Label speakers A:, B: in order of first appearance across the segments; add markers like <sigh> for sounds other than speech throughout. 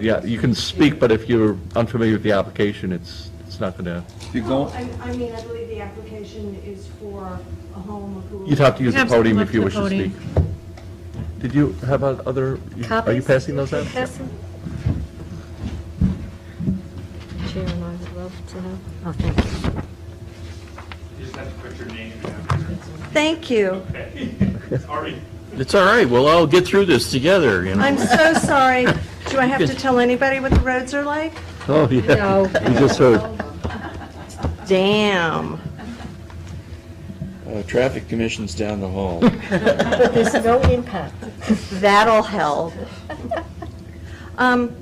A: Yeah, you can speak, but if you're unfamiliar with the application, it's, it's not gonna,
B: If you
C: No,
B: go,
C: I I mean, I believe the application is for a home who...
A: you'd have to use the
D: Have someone
A: podium
D: up
A: if
D: to
A: you
D: the
A: wish to
D: podium.
A: speak. Did you have o- other, are you
E: Copies?
A: passing those out?
E: Yes. Chair and I would love to know. Oh, thank you.
F: You just have to put your name down.
E: Thank you.
F: Okay. Sorry.
G: It's all right, we'll all get through this together, you know?
E: I'm so sorry. Do I have to tell anybody what the roads are like?
A: <laughs> Oh, yeah,
E: No.
A: you just heard.
E: Damn.
G: Uh, Traffic Commission's down the
E: <laughs>
G: hall.
E: But there's no impact. That'll help. Um,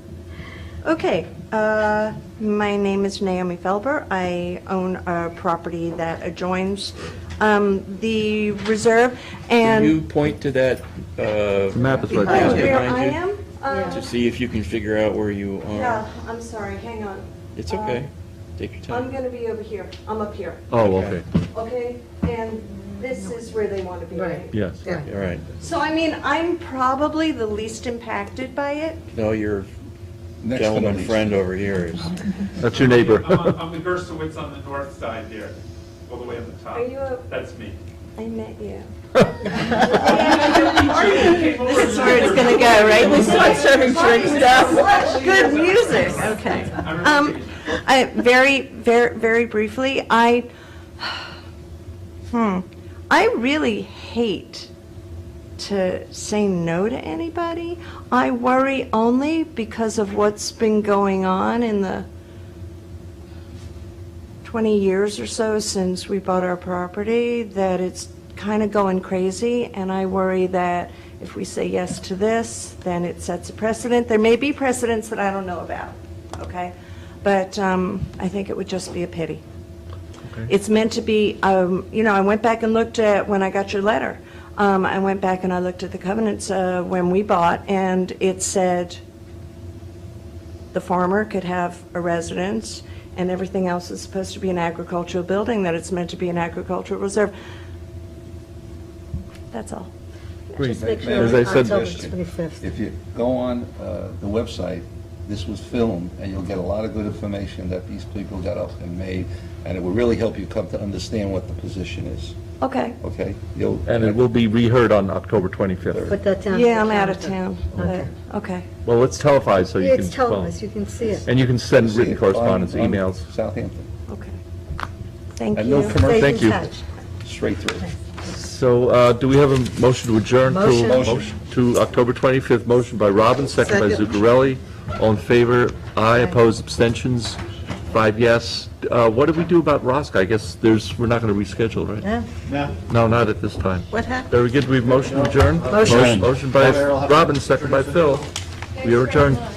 E: Okay, uh, my name is Naomi Felber. I own a property that adjoins um, the reserve,
G: Can
E: and...
G: you point to that, uh...
A: The map is right
G: house
A: there.
E: Oh, Where
G: behind
E: I
G: you
E: am? Uh,
G: To see if you can figure out where you
E: Yeah,
G: are.
E: I'm sorry, hang on.
G: It's okay, take your
C: I'm
G: time.
C: going to be over here.
E: I'm up here,
A: Oh, okay,
E: okay? And this is where they want to be, right?
A: yes.
G: All right,
E: So I mean, I'm probably the least impacted by it.
G: no, your
B: next to
G: gentleman
B: the,
G: friend over here is,
A: That's your neighbor.
F: I'm on- I'm the Gersowitz on the north side there, all the way on the top.
E: Are you a- <laughs>
F: That's me.
E: I met you.
F: This
E: That's where it's gonna go, right? <laughs> This is what serving drinks does. Good music, okay. Um, I, very, very, very briefly, I, hmm, I really hate to say no to anybody. I worry only because of what's been going on in the 20 years or so since we bought our property, that it's kind of going crazy, and I worry that if we say yes to this, then it sets a precedent. There may be precedents that I don't know about, okay? But um, I think it would just be a pity. It's meant to be, um, you know, I went back and looked at, when I got your letter, um, I went back and I looked at the covenants uh, when we bought, and it said, the farmer could have a residence, and everything else is supposed to be an agricultural building, that it's meant to be an agricultural reserve. That's all.
A: Great.
B: make sure
A: As I
B: October
A: said,
B: 25th. if you go on uh, the website, this was filmed, and you'll get a lot of good information that these people got up and made, and it will really help you come to understand what the position is,
E: Okay.
B: okay? You'll,
A: and it will be reheard on October 25th.
H: Put that down.
E: Yeah, I'm out of town.
H: Okay.
E: but- Okay.
A: Well, it's televised, so you
H: Yeah,
A: can.
H: it's televised, you can see it.
A: And you can send
B: see it
A: written
B: on-
A: correspondence,
B: on
A: emails.
B: Southampton,
E: Okay. Thank
B: And no
E: you.
B: commer-
H: Stay in
A: Thank you.
H: touch.
B: straight through.
A: So uh, do we have a motion to adjourn to?
H: Motion.
B: Motion.
A: To October 25th, motion by Robbins, second by
H: Second.
A: Zuccarelli. All in favor? Aye, opposed, abstentions? Five yes. Uh, What do we do about Roscoe? I guess there's, we're not going to reschedule, right?
H: Yeah.
A: No, not at this time.
H: What happened?
A: Very good, we've motion adjourned?
H: Motion.
A: Motion by Robbins, second by Phil. We are adjourned.